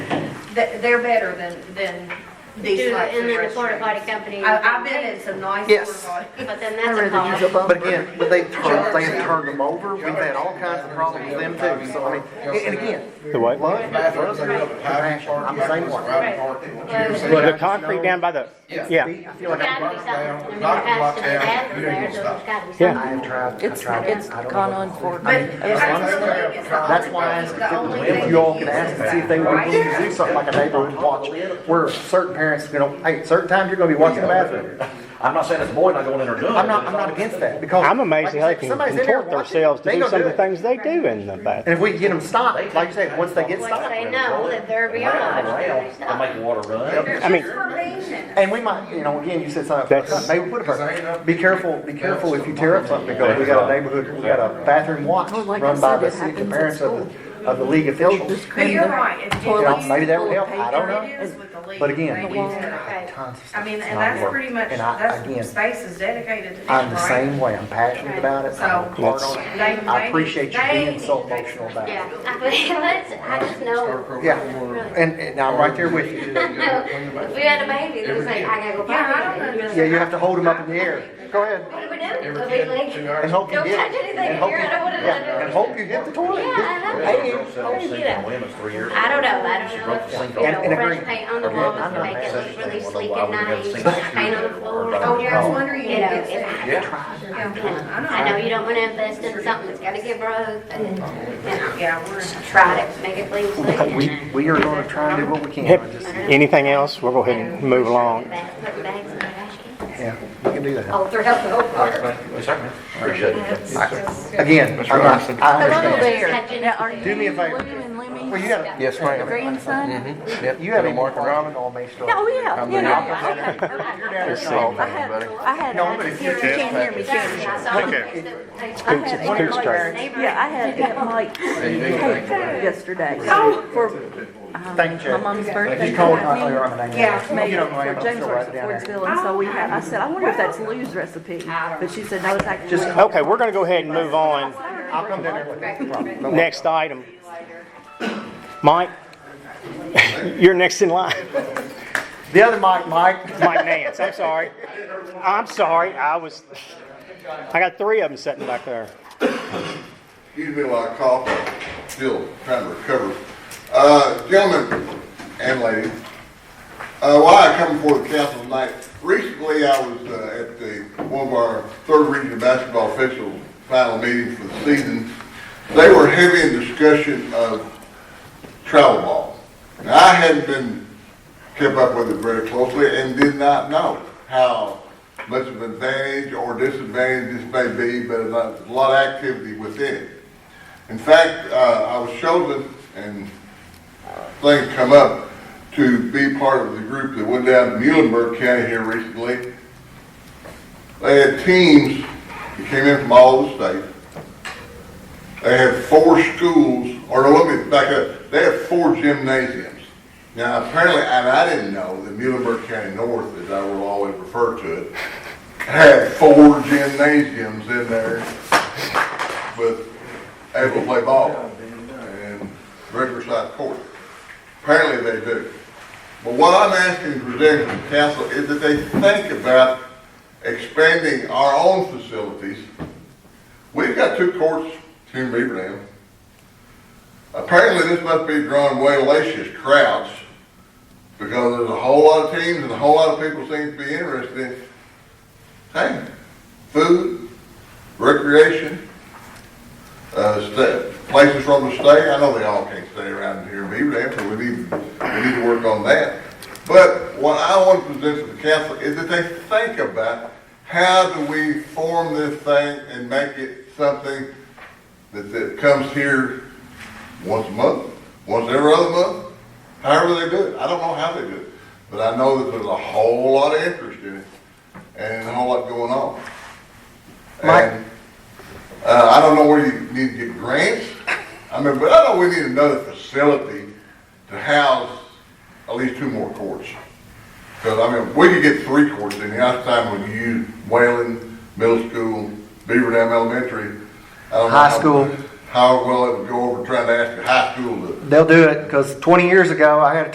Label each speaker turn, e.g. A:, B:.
A: They- They're better than, than these
B: Do
A: types of
B: in the porta potty
A: restrooms.
B: company.
A: I- I've been in some nice
C: Yes.
A: porta potty.
B: But then
D: I'd
B: that's a
D: rather use a
B: problem.
D: bumper.
C: But again, but they've turned, they've turned them over, we've had all kinds of problems with them too, so I mean, and and again,
E: The what?
C: Lund,
F: Bathrooms,
C: Lund,
F: they got the private
C: compassion, I'm the same
F: parking,
C: one.
F: private parking.
E: The concrete down by the,
F: Yeah.
C: I
E: yeah.
C: feel like
B: Gotta
C: I,
B: be something. I mean,
F: Knock
B: there
F: the
B: has
F: block
B: to be
F: down,
B: bathroom
F: you're
B: there,
F: gonna
B: so there's
F: stop.
B: gotta be
E: Yeah.
C: I
B: something.
C: have tried, I
D: It's,
C: tried.
D: it's
C: I don't
D: gone
C: know.
D: on for,
A: But I
D: ever
A: still think it's the
C: That's why I
A: only
C: asked
A: thing-
C: if
A: the only
C: it- if
A: thing
C: you all
A: that
C: could
A: is
C: ask and see if they would
A: right
C: do something like a neighborhood watch, where certain parents, you know, hey, certain times you're gonna be watching the bathroom.
G: I'm not saying it's a boy not going in or doing it.
C: I'm not, I'm not against that, because.
E: I'm amazed how they
C: like
E: can
C: you said, somebody's in there
E: contort
C: watching,
E: themselves to
C: they
E: do
C: gonna
E: some of the
C: it.
E: things they do in the bathroom.
C: And if we can get them stopped, like you said, once they get
B: Once
C: stopped,
B: they know that they're beyond opportunity,
G: Around,
B: stop.
G: I make water run.
E: I mean,
A: Just for maintenance.
C: and we might, you know, again, you said something, about
E: That's-
C: maybe we put a person, be careful, be careful if you tear up something, because we got a neighborhood, we got a bathroom watch
D: Well, Oh, like I
C: run by
D: said,
C: the
D: it
C: city, the
D: happens at
C: parents of the, of the league
D: they'll
C: officials.
D: just
A: But
D: clean
A: you're
D: the
A: right. if you
C: You know,
A: use
C: maybe that would
A: little
C: help, I don't
A: paper,
C: know.
A: it is with the leaf
C: But again,
A: things
C: we
A: in it.
B: Right.
C: tons of
A: I
C: stuff.
A: mean,
C: It's
A: and
C: not
A: that's
C: work.
A: pretty much,
C: And I- again,
A: that's, space is dedicated to
C: I'm
A: them,
C: the
A: right?
C: same way, I'm passionate about it, I'm hard on it.
A: They-
C: I
A: they-
C: appreciate you
A: they
C: being
A: need
C: so
A: to fix
C: emotional
A: it.
C: about it.
B: Yeah, I mean, let's, I just know,
C: Yeah, and, and I'm right there with you.
B: if we had a baby, it was like, I gotta go.
A: Yeah, I
B: potty.
A: don't
B: You'd be like,
C: Yeah, you have to hold them up in the air, go ahead.
B: What do we do?
F: Every
B: We'll
F: kid,
B: be like,
F: two
C: And
F: hours.
C: hope you
B: Don't
C: get.
B: touch anything
C: and hope
B: here,
C: you-
B: I don't want to
C: yeah, And hope you hit the toilet.
B: Yeah, I know.
C: Hey,
G: Girl sells
B: Hey,
G: sink
B: yeah.
G: on women's three years
B: I don't
G: ago.
B: know, I don't
G: She
B: know
G: broke the
B: if,
G: sink
B: you
G: off.
C: And- and
B: know,
C: agree.
B: fresh paint on the
C: Again,
B: walls
C: I'm
B: would
C: not
B: make
G: mad.
B: it look really
G: Well,
B: sleek
G: why
B: and
G: would we have
B: nice,
G: sinks?
B: fresh paint on the floor.
A: Oh, yeah, I was wondering
B: You
A: if
B: know,
A: it's that.
B: if-
G: Yeah,
A: Yeah,
B: I
A: I
B: know you don't want to invest in something that's gotta give growth and, you
A: know.
B: know,
A: Yeah, we're.
B: try to make it clean. sleek, and
C: We,
B: then-
C: we are gonna try and do what we can,
E: Yep.
C: I just,
E: Anything else? We'll go ahead and move along.
B: Bag- put bags in the Oh, trash can.
C: yeah, we can do that.
B: All throughout the whole park.
G: Yes, sir. Appreciate it.
C: Again, I'm not, I
D: Hello
C: understand.
D: there. Now, are you
C: Do me a favor.
D: William and Lemmy's
C: Well, you got, Mm-hmm.
H: Yes, ma'am.
D: grandson?
C: you have a mark around on me still.
D: Oh, yeah, yeah, yeah, okay.
C: You're down here.
D: I had, I had,
C: No, but if you-
D: you can't hear me, can you? I
E: Coots-
D: had
E: it's
D: Aunt
E: Coots
D: Mike's-
E: Drive.
D: Yeah, I had Aunt Mike's cake yesterday for um,
C: Thank you,
D: my
C: Judge.
D: mom's birthday.
C: You called,
D: I
C: I
D: mean,
C: know I'm an
A: Yeah.
C: angry.
D: made
C: You
D: it
C: don't know I'm
D: for James
C: still
D: Works
C: right
D: at
C: down there.
D: Fordsville, and so we had, I said, I wonder if that's Lou's recipe, but she said, no, it's actually.
E: Okay, we're gonna go ahead and move on.
C: I'll come down there with you. No problem.
E: Next item. Mike, you're next in line.
C: The other mic, Mike.
E: Mike Nance, I'm sorry. I'm sorry, I was, I got three of them sitting back there.
I: He's been a lot of cough, but still trying to recover. Uh, gentlemen and ladies, uh, why I come before the council tonight, recently I was, uh, at the, one of our third region basketball official final meeting for the season. They were heavy in discussion of travel ball. Now, I hadn't been kept up with it very closely and did not know how much of an advantage or disadvantage this may be, but there's a lot of activity within it. In fact, uh, I was chosen and things come up to be part of the group that went down to Muhlenberg County here recently. They had teams that came in from all over the state. They had four schools, or no, let me back up, they had four gymnasiums. Now, apparently, and I didn't know that Muhlenberg County North, as I will always refer to it, had four gymnasiums in there with able to play ball and regular size court. Apparently, they do. But what I'm asking the presenting to the council is that they think about expanding our own facilities We've got two courts in Beaverdam. Apparently, this must be drawing way lacious crowds, because there's a whole lot of teams and a whole lot of people seem to be interested in, hey, food, recreation, uh, sta- places for them to stay. I know they all can't stay around here in Beaverdam, so we need, we need to work on that. But what I want to present to the council is that they think about, how do we form this thing and make it something that, that comes here once a month, once every other month? However they do it, I don't know how they do it, but I know that there's a whole lot of interest in it and a whole lot going on.
C: Mike?
I: And uh, I don't know where you need to get grants. I mean, but I know we need another facility to house at least two more courts. Because, I mean, we could get three courts in here. Last time when you used Whalen Middle School, Beaver Dam Elementary. I don't know
C: High
I: how-
C: school.
I: How well it would go over trying to ask a high school to
C: They'll do it, because 20 years ago, I had a